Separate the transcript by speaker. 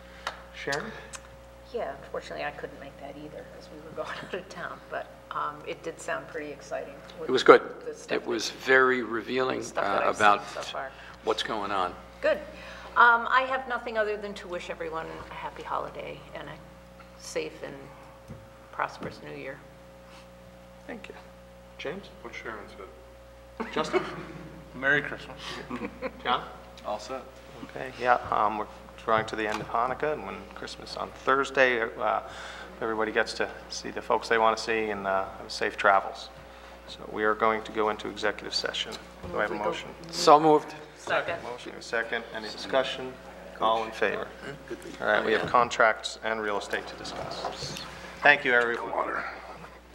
Speaker 1: Sharon?
Speaker 2: Yeah, unfortunately, I couldn't make that either because we were going out of town, but um, it did sound pretty exciting. with
Speaker 3: It was good.
Speaker 2: the stuff
Speaker 3: It
Speaker 2: that-
Speaker 3: was very revealing
Speaker 2: Stuff that
Speaker 3: uh,
Speaker 2: I've seen
Speaker 3: about
Speaker 2: so far.
Speaker 3: what's going on.
Speaker 2: Good. Um, I have nothing other than to wish everyone a happy holiday and a safe and prosperous new year.
Speaker 3: Thank you.
Speaker 1: James?
Speaker 4: What Sharon said.
Speaker 1: Justin?
Speaker 5: Merry Christmas.
Speaker 1: John?
Speaker 5: All set.
Speaker 6: Okay, yeah, um, we're drawing to the end of Hanukkah, and when Christmas on Thursday, uh, everybody gets to see the folks they want to see and uh, have safe travels. So we are going to go into executive session. Do I have a motion?
Speaker 3: So moved.
Speaker 2: Second.
Speaker 6: Motion, a second, any discussion? All in favor? All right, we have contracts and real estate to discuss. Thank you, everyone.